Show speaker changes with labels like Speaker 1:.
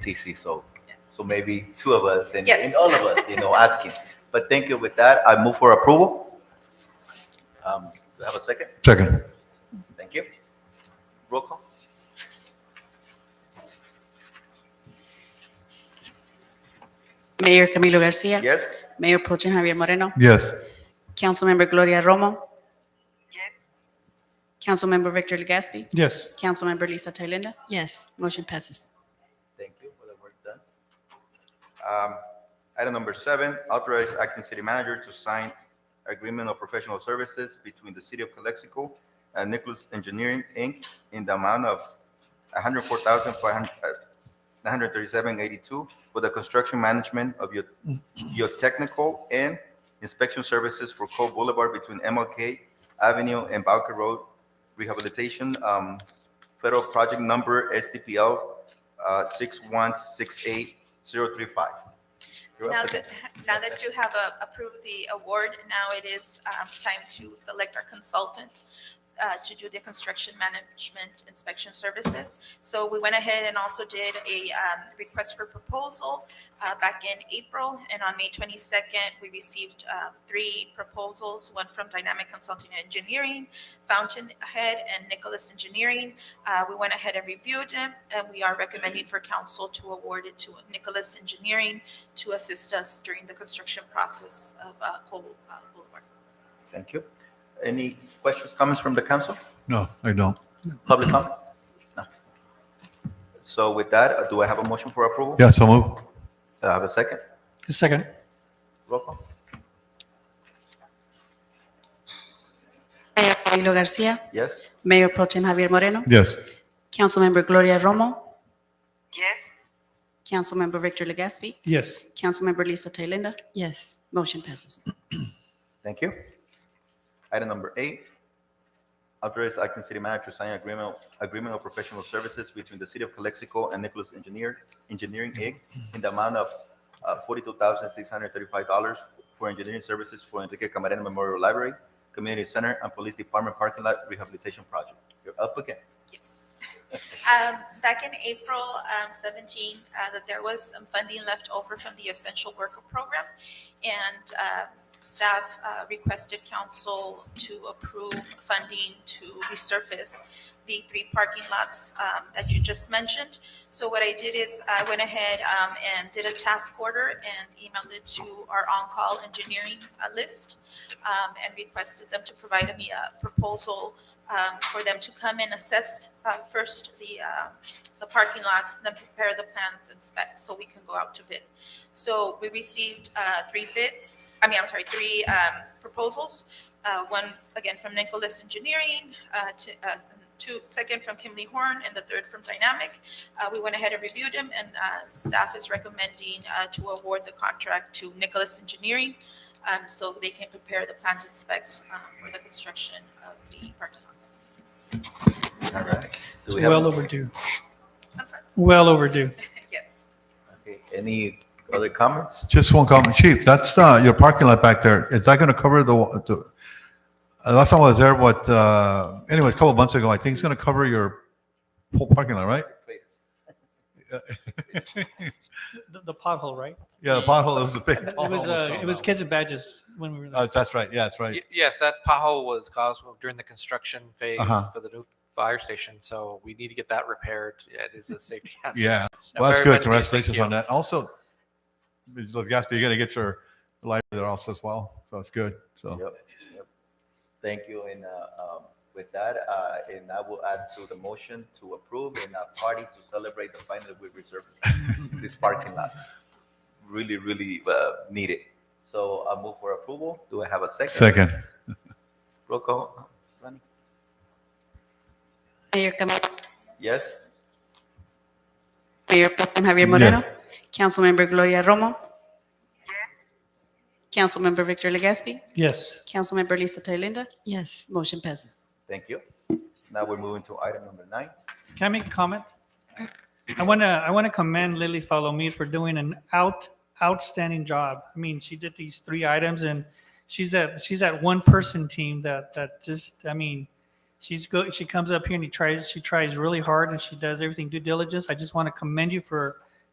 Speaker 1: TC. So, so maybe two of us and,
Speaker 2: Yes.
Speaker 1: and all of us, you know, asking. But thank you. With that, I move for approval. Um, do I have a second?
Speaker 3: Second.
Speaker 1: Thank you. Roll call.
Speaker 4: Mayor Camilo Garcia.
Speaker 1: Yes.
Speaker 4: Mayor Pro Tem Javier Moreno.
Speaker 3: Yes.
Speaker 4: Councilmember Gloria Romo. Yes. Councilmember Victor Legaspi.
Speaker 5: Yes.
Speaker 4: Councilmember Lisa Thailenda.
Speaker 2: Yes.
Speaker 4: Motion passes.
Speaker 1: Thank you for the work done. Um, Item number seven, authorize acting city manager to sign agreement of professional services between the city of Calexico and Nicholas Engineering, Inc. in the amount of one hundred four thousand five hundred uh, nine hundred thirty-seven eighty-two for the construction management of your, your technical and inspection services for Cove Boulevard between MLK Avenue and Bowker Road rehabilitation, um, federal project number SDPL uh, 6168035. You're
Speaker 2: Now
Speaker 1: up.
Speaker 2: that, now that you have uh, approved the award, now it is um, time to select our consultant uh, to do the construction management inspection services. So we went ahead and also did a um, request for proposal uh, back in April. And on May 22nd, we received uh, three proposals, one from Dynamic Consulting and Engineering, Fountainhead, and Nicholas Engineering. Uh, We went ahead and reviewed them, and we are recommending for council to award it to Nicholas Engineering to assist us during the construction process of uh, Cole uh, Boulevard.
Speaker 1: Thank you. Any questions, comments from the council?
Speaker 3: No, I don't.
Speaker 1: Public comment? No. So with that, uh, do I have a motion for approval?
Speaker 3: Yeah, so move.
Speaker 1: Do I Uh, have a second?
Speaker 5: Second.
Speaker 1: Roll call.
Speaker 4: Mayor Camilo Garcia.
Speaker 1: Yes?
Speaker 4: Mayor Pro Tem Javier Moreno.
Speaker 3: Yes.
Speaker 4: Councilmember Gloria Romo. Yes. Councilmember Victor Legaspi.
Speaker 5: Yes.
Speaker 4: Councilmember Lisa Thailenda.
Speaker 2: Yes.
Speaker 4: Motion passes.
Speaker 1: Thank you. Item number eight, authorize acting city manager to sign agreement, agreement of professional services between the city of Calexico and Nicholas Engineer, Engineering Inc. in the amount of uh, forty-two thousand six hundred thirty-five dollars for engineering services for Enrique Camarena Memorial Library, Community Center, and Police Department Parking Lot Rehabilitation Project. You're up again.
Speaker 2: Yes. Um, Back in April um, 17, uh, that there was some funding left over from the Essential Worker Program, and uh, staff uh, requested council to approve funding to resurface the three parking lots um, that you just mentioned. So what I did is I went ahead um, and did a task order and emailed it to our on-call engineering uh, list um, and requested them to provide me a proposal um, for them to come and assess uh, first the, uh, the parking lots, then prepare the plans and specs so we can go out to bid. So we received uh, three bids, I mean, I'm sorry, three um, proposals. Uh, One, again, from Nicholas Engineering, uh, to- uh, two, second from Kimley Horn, and the third from Dynamic. Uh, We went ahead and reviewed them, and uh, staff is recommending uh, to award the contract to Nicholas Engineering um, so they can prepare the plans and specs uh, for the construction of the parking lots.
Speaker 1: All right. Do
Speaker 5: It's
Speaker 1: we have-
Speaker 5: well overdue.
Speaker 2: I'm sorry,
Speaker 5: Well overdue.
Speaker 2: yes.
Speaker 1: Okay, Any other comments?
Speaker 3: Just one comment, Chief. That's uh, your parking lot back there. Is that going to cover the, wa- the- uh, last time I was there, what, uh, anyways, a couple months ago, I think it's going to cover your whole parking lot, right?
Speaker 5: The, the pothole, right?
Speaker 3: Yeah, the pothole, it was Uh, a big
Speaker 5: It
Speaker 3: pothole.
Speaker 5: was, uh, it was
Speaker 3: kidding.
Speaker 5: kids and badges when we were. there.
Speaker 3: That's right. Yeah, that's right.
Speaker 6: Y- Yes, that pothole was caused during the construction phase
Speaker 3: Uh-huh.
Speaker 6: for the new fire station, so we need to get that repaired. Yeah, It is a safety hazard.
Speaker 3: Yeah.
Speaker 6: So
Speaker 3: Well, that's
Speaker 6: very
Speaker 3: good.
Speaker 6: much needed.
Speaker 3: Congratulations
Speaker 6: Thank you.
Speaker 3: on that. Also, Ms. Gaspi, you got to get your life there also as well. So it's good. So,
Speaker 1: Yep, yep. Thank you, and uh, um, with that, uh, and I will add to the motion to approve and a party to celebrate the final we reserved these parking lots. Really, really uh, need it. So I move for approval. Do I have a second?
Speaker 3: second.
Speaker 1: Roll call. Ronnie?
Speaker 4: Mayor Camilo.
Speaker 1: Yes?
Speaker 4: Mayor Pro Tem Javier Moreno.
Speaker 3: Yes.
Speaker 4: Councilmember Gloria Romo. Yes. Councilmember Victor Legaspi.
Speaker 5: Yes.
Speaker 4: Councilmember Lisa Thailenda. Yes. Motion passes.
Speaker 1: Thank you. Now we're moving to item number nine.
Speaker 5: Can I make a comment? I want to, I want to commend Lily Follow Me for doing an out, outstanding job. I mean, she did these three items and she's that, she's that one person team that, that just, I mean, she's good. She comes up here and she tries, she tries really hard and she does everything due diligence. I just want to commend you for